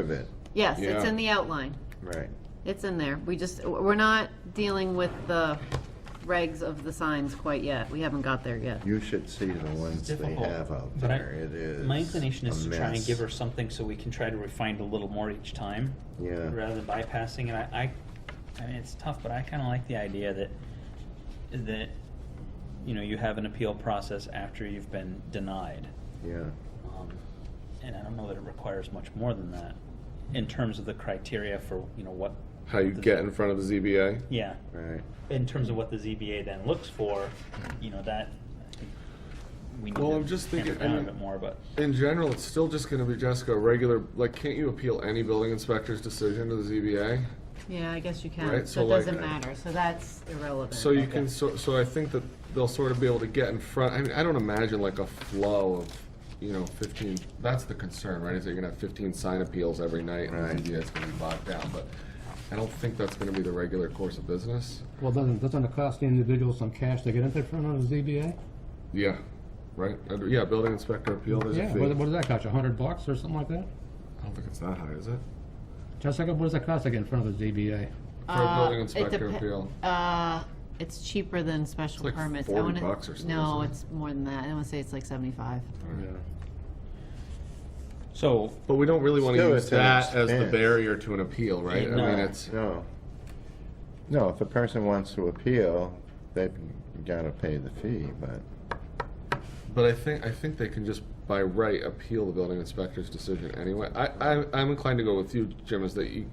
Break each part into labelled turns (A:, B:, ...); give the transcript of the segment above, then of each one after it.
A: of it,
B: Yes, it's
C: Yeah.
B: in the outline.
A: right.
B: It's in there. We just, we're not dealing with the regs of the signs quite yet. We haven't got there yet.
A: You should see the ones they
D: difficult,
A: have out
D: but I-
A: there. It is.
D: My inclination is
A: a
D: to try and
A: mess.
D: give her something so we can try to refine it a little more each time.
A: Yeah.
D: Rather than bypassing it, I, I, I mean, it's tough, but I kind of like the idea that, that, you know, you have an appeal process after you've been denied.
A: Yeah,
D: Um, And I don't know that it requires much more than that in terms of the criteria for, you know, what,
C: How you get in front of the ZBA?
D: yeah.
A: right.
D: In terms of what the ZBA then looks for, you know, that, I think we need
C: Well, I'm
D: to
C: just
D: hammer
C: thinking- I
D: down a
C: mean-
D: bit more, but.
C: In general, it's still just gonna be Jessica, a regular, like, can't you appeal any building inspector's decision to the ZBA?
B: Yeah, I guess you can.
C: Right,
B: So
C: so
B: it doesn't
C: like-
B: matter. So that's irrelevant.
C: So you can, so, so I think that they'll sort of be able to get in front, I mean, I don't imagine like a flow of, you know, fifteen, that's the concern, right? Is that you're gonna have fifteen sign appeals every night
A: Right.
C: and the ZBA's gonna be bogged down, but I don't think that's gonna be the regular course of business.
E: Well, doesn't, doesn't it cost the individual some cash to get into front of the ZBA?
C: Yeah, right? Uh, Yeah, building inspector appeal, there's a
E: Yeah,
C: fee.
E: what, what does that cost, a hundred bucks or something like that?
C: I don't think it's that high, is it?
E: Jessica, what does that cost to get in front of the ZBA?
C: For a building
B: Uh, it
C: inspector
B: depe-
C: appeal.
B: Uh, it's cheaper than special
C: like
B: permits. I
C: 40
B: wanna-
C: bucks or something,
B: No,
C: isn't it?
B: it's more than that. I want to say it's like seventy-five.
D: So,
C: But we don't really want to
A: Still,
C: use
A: it's an
C: that as the
A: expense.
C: barrier to an appeal, right? I
D: No.
C: mean, it's,
A: No. No, if a person wants to appeal, they've gotta pay the fee, but,
C: but I think, I think they can just by right appeal the building inspector's decision anyway. I, I, I'm inclined to go with you, Jim, is that you,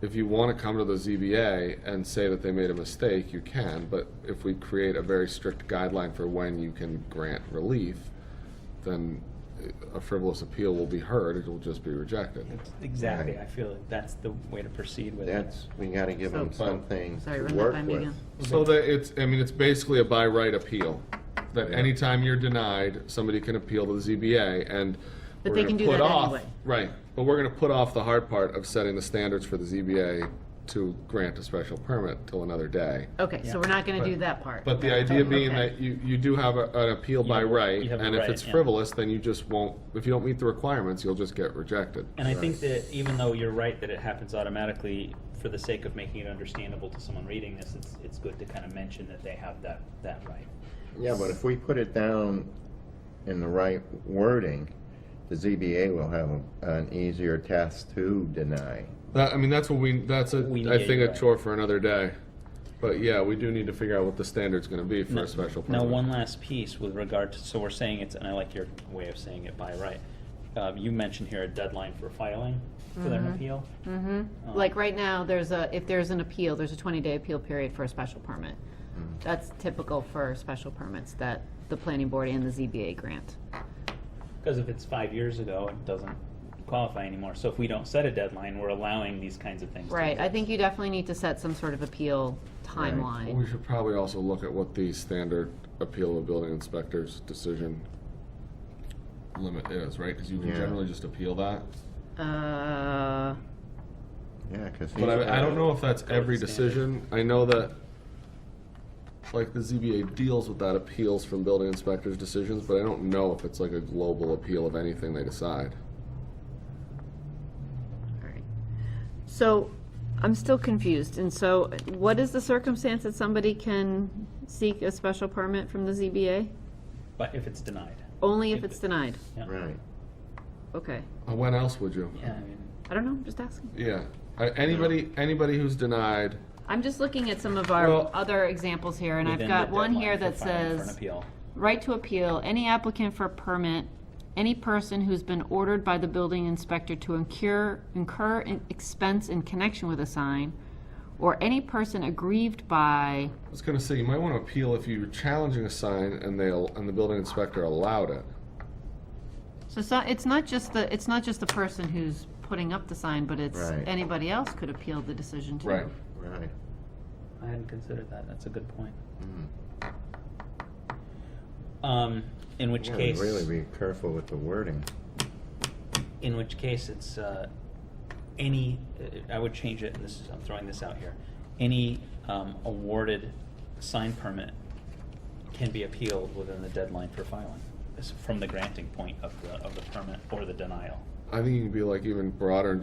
C: if you want to come to the ZBA and say that they made a mistake, you can, but if we create a very strict guideline for when you can grant relief, then a frivolous appeal will be heard, it will just be rejected.
D: That's Exactly,
A: Right.
D: I feel like that's the way to proceed with it.
A: that's, we gotta give them
B: So-
A: something
B: Sorry,
A: to
B: run that
A: work
B: by me
A: with.
B: again.
C: So that it's, I mean, it's basically a by right appeal, that anytime you're denied, somebody can appeal to the ZBA and.
B: But
C: we're
B: they
C: gonna
B: can do
C: put
B: that
C: off-
B: anyway.
C: Right, but we're gonna put off the hard part of setting the standards for the ZBA to grant a special permit till another day.
B: Okay, so we're not going to do that part.
C: But the idea being
B: Okay.
C: that you, you do have a- an appeal by
D: have a-
C: right,
D: you have a
C: and if
D: right,
C: it's
D: yeah.
C: frivolous, then you just won't, if you don't meet the requirements, you'll just get rejected.
D: And I think that even though you're right that it happens automatically, for the sake of making it understandable to someone reading this, it's, it's good to kind of mention that they have that, that right.
A: Yeah, but if we put it down in the right wording, the ZBA will have an easier task to deny.
C: That, I mean, that's what we, that's a,
D: We
C: I
D: need,
C: think a
D: right.
C: chore for another day. But yeah, we do need to figure out what the standard's gonna be for a special permit.
D: Now, one last piece with regard to, so we're saying it's, and I like your way of saying it by right. Um, you mentioned here a deadline for filing for their appeal.
B: Mm-hmm. Like right now, there's a, if there's an appeal, there's a 20-day appeal period for a special permit. That's typical for special permits that the planning board and the ZBA grant.
D: Because if it's five years ago, it doesn't qualify anymore. So if we don't set a deadline, we're allowing these kinds of things. to
B: Right, I
D: exist.
B: think you definitely need to set some sort of appeal
C: Well,
B: timeline.
C: We should probably also look at what the standard appeal of building inspector's decision limit is, right? Because you can
A: Yeah.
C: generally just appeal that.
B: Uh,
A: Yeah, cause.
C: But
A: he's
C: I, I don't know if that's
D: Code
C: every
D: standard.
C: decision. I know that, like, the ZBA deals with that appeals from building inspector's decisions, but I don't know if it's like a global appeal of anything they decide.
B: all right. So, I'm still confused, and so what is the circumstance that somebody can seek a special permit from the ZBA?
D: But if it's denied.
B: Only if it's denied,
D: Yeah.
A: Right,
B: okay.
C: Uh, When else would you?
D: Yeah, I mean,
B: I don't know, I'm just asking.
C: Yeah. Uh, Anybody, anybody who's denied,
B: I'm just looking at some of our
C: Well-
B: other examples here, and I've
D: within
B: got
D: the
B: one
D: deadline
B: here
D: for
B: that
D: filing for an
B: says,
D: appeal.
B: right to appeal, any applicant for a permit, any person who's been ordered by the building inspector to incur, incur in- expense in connection with a sign, or any person aggrieved by,
C: I was gonna say, you might wanna appeal if you were challenging a sign and they, al- and the building inspector allowed it.
B: so, so it's not just the, it's not just the person who's putting up the sign, but it's
A: Right.
B: anybody else could appeal the decision too.
C: Right.
A: right.
D: I hadn't considered that. That's a good point.
A: Mm.
D: Um, in which
A: Yeah,
D: case,
A: Really be careful with the wording.
D: in which case, it's uh, any. uh, I would change it, and this is I'm throwing this out here. Any um, awarded sign permit can be appealed within the deadline for filing, It's from the granting point of the of the permit or the denial.
C: I think you can be like even broader and just